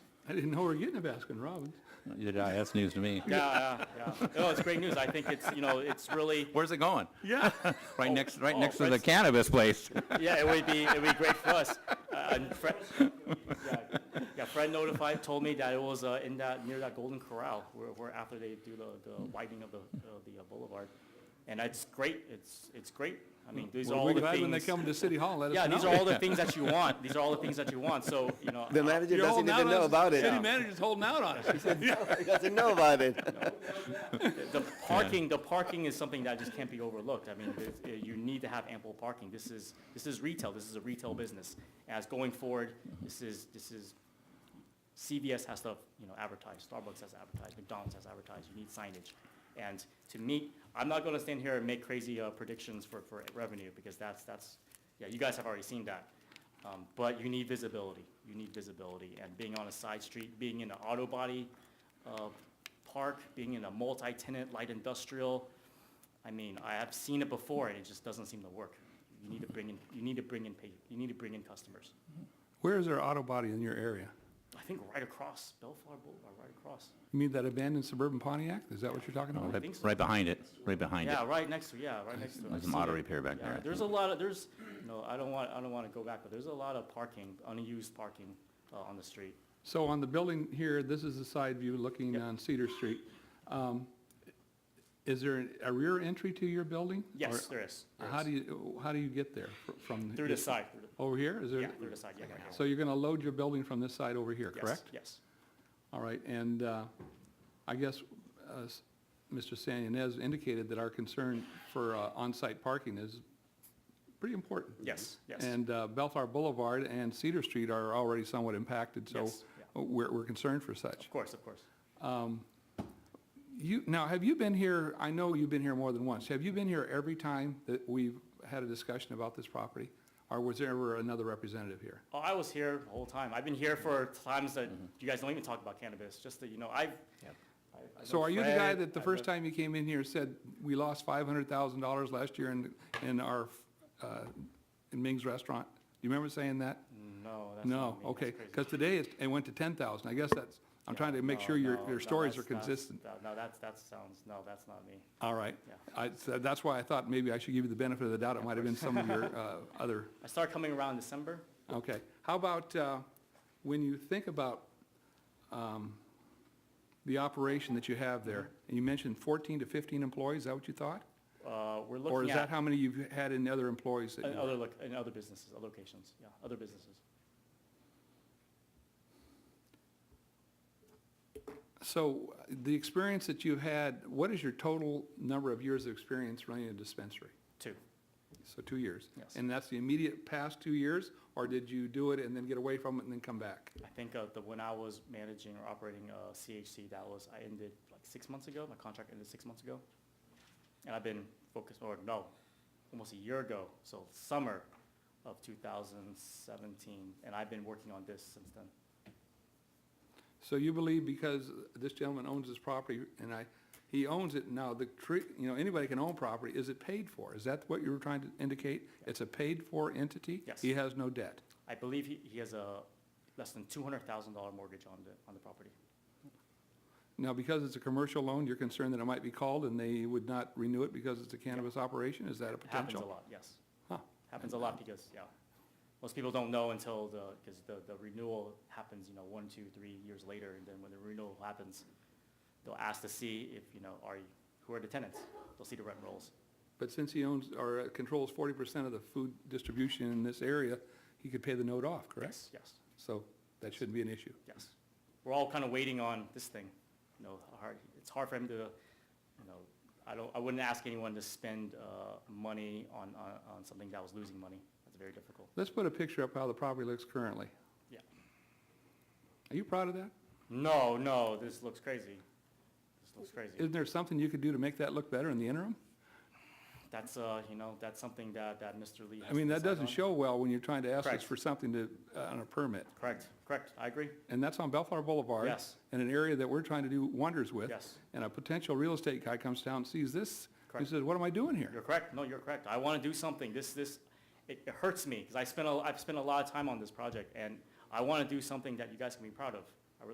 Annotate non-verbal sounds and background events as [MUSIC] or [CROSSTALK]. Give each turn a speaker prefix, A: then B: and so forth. A: I didn't know we were getting a Baskin Robbins.
B: Did I? That's news to me.
C: Yeah, yeah, yeah. No, it's great news. I think it's, you know, it's really,
B: Where's it going?
A: Yeah.
B: [LAUGHS] Right next, right
C: oh,
B: next to the
C: that's-
B: cannabis place.
C: yeah, it would be, it'd be great for us. Uh, and Fred, yeah, yeah, Fred notified, told me that it was uh, in that, near that Golden Corral, where, where after they do the, the widening of the, of the uh, boulevard. And it's great, it's, it's great. I mean, these are
A: Well,
C: all
A: we're
C: the
A: glad when they
C: things.
A: come to City Hall, let us know.
C: Yeah, these are
A: [LAUGHS]
C: all the things that you want. These are all the things that you want, so, you know.
D: The
C: uh,
D: manager
A: You're
D: doesn't
A: holding
D: even
A: out
D: know
A: on us.
D: about
A: City
D: it.
A: manager's holding out on us. He
C: [LAUGHS]
A: said,
D: He doesn't know about it.
C: The parking, the parking is something that just can't be overlooked. I mean, there's- uh, you need to have ample parking. This is, this is retail, this is a retail business. As going forward, this is, this is, CVS has to, you know, advertise, Starbucks has to advertise, McDonald's has to advertise, you need signage. And to me, I'm not gonna stand here and make crazy uh, predictions for, for revenue, because that's, that's, yeah, you guys have already seen that. Um, But you need visibility, you need visibility, and being on a side street, being in an auto body uh, park, being in a multi-tenant light industrial, I mean, I have seen it before, and it just doesn't seem to work. You need to bring in, you need to bring in, pa- you need to bring in customers.
A: Where is our auto body in your area?
C: I think right across Bellflower Boulevard, right across.
A: You mean that abandoned suburban Pontiac? Is that what you're talking about?
C: I
B: Right-
C: think so.
B: Right behind it, right behind it.
C: Yeah, right next to, yeah, right next to. it.
B: There's
C: I've
B: some
C: seen
B: auto
C: it.
B: repair back
C: Yeah,
B: there, I
C: There's a lot of, there's, no, I don't want, I don't want to go back, but there's a lot of parking, unused parking uh, on the street.
A: So on the building here, this is the side view looking
C: Yep.
A: on Cedar Street. Um, Is there a rear entry to your building?
C: Yes,
A: Or
C: there is. there
A: How
C: is.
A: do you, how do you get there fr- from?
C: Through the
A: this-
C: side, through the-
A: Over here? Is there?
C: yeah, through the side, yeah, yeah, yeah.
A: So you're going to load your building from this side over here,
C: Yes,
A: correct?
C: Yes.
A: All right, and uh, I guess uh, s- Mr. San Ynez indicated that our concern for uh, on-site parking is pretty important.
C: Yes, yes.
A: And uh, Bellflower Boulevard and Cedar Street are already somewhat impacted, so
C: Yes, yeah.
A: we're we're concerned for such.
C: Of course, of course.
A: You, now, have you been here, I know you've been here more than once, have you been here every time that we've had a discussion about this property? Or was there ever another representative here?
C: Oh, I was here the whole time. I've been here for
A: Mm-hmm.
C: times that
B: Mm-hmm.
C: you guys don't even talk about cannabis, just that, you know, I've. I- I
A: So
C: know
A: are you the guy
C: Fred,
A: that the
C: I
A: first
C: know-
A: time you came in here said, we lost five hundred thousand dollars last year in, in our, uh, in Ming's restaurant? You remember saying that?
C: No, that's.
A: No,
C: not me.
A: okay,
C: That's crazy.
A: because today it, it went to ten thousand. I guess that's, I'm trying to make
C: No,
A: sure your,
C: no,
A: your
C: no,
A: stories are
C: that's- that's-
A: consistent.
C: that- No, that's, that sounds, no, that's not me.
A: All right.
C: Yeah.
A: I, so that's why I thought maybe I should give you the benefit of the doubt. It might have been some of
C: [LAUGHS]
A: your, uh, other
C: I started coming around in December.
A: Okay, how about, uh, when you think about um, the operation that you have there,
C: Mm-hmm.
A: and you mentioned 14 to 15 employees, is that what you thought?
C: Uh,
A: Or
C: We're
A: is
C: looking
A: that
C: at
A: how many you've had in other employees? that
C: in
A: you-
C: other, loc- in other businesses, other locations, yeah, other businesses.
A: So uh, the experience that you've had, what is your total number of years of experience running a dispensary?
C: Two.
A: So two years?
C: Yes.
A: And that's the immediate past two years, or did you do it and then get away from it and then come back?
C: I think uh, the, when I was managing or operating uh, CHC, that was, I ended like six months ago, my contract ended six months ago. And I've been focused, or no, almost a year ago, so summer of 2017, and I've been working on this since then.
A: So you believe because this gentleman owns this property, and I, he owns it, now the tree, you know, anybody can own property, is it paid for? Is that what you were trying to indicate? It's a paid-for entity?
C: Yes.
A: He has no debt.
C: I believe he, he has a less than $200,000 mortgage on the, on the property.
A: Now, because it's a commercial loan, you're concerned that it might be called and they would not renew it because it's a cannabis operation? Is that a
C: It happens a
A: potential?
C: lot, yes.
A: Huh.
C: Happens a lot because, yeah, most people don't know until the, because the, the renewal happens, you know, one, two, three years later, and then when the renewal happens, they'll ask to see if, you know, are, you who are the tenants? They'll see the rent rolls.
A: But since he owns, or uh, controls forty percent of the food distribution in this area, he could pay the note off, correct?
C: Yes, yes,
A: So that shouldn't be an issue.
C: yes. We're all kind of waiting on this thing, you know, hard, it's hard for him to, you know, I don't, I wouldn't ask anyone to spend, uh, money on, on, on something that was losing money. That's very difficult.
A: Let's put a picture up how the property looks currently.
C: Yeah.
A: Are you proud of that?
C: No, no, this looks crazy. This looks crazy.
A: Isn't there something you could do to make that look better in the interim?
C: That's, uh, you know, that's something that, that Mr. Lee has.
A: I mean,
C: to
A: that
C: decide
A: doesn't
C: on.
A: show well when you're trying to ask us
C: Correct.
A: for something to, uh, on a permit.
C: Correct, correct, I agree.
A: And that's on Bellflower Boulevard.
C: Yes.
A: In an area that we're trying to do wonders with.
C: Yes.
A: And a potential real estate guy comes down and sees this, and
C: Correct.
A: says, what am I doing here?
C: You're correct, no, you're correct. I want to do something, this, this, it it hurts me, because I spent, a- I've spent a lot of time on this project, and I want to do something that you guys can be proud of.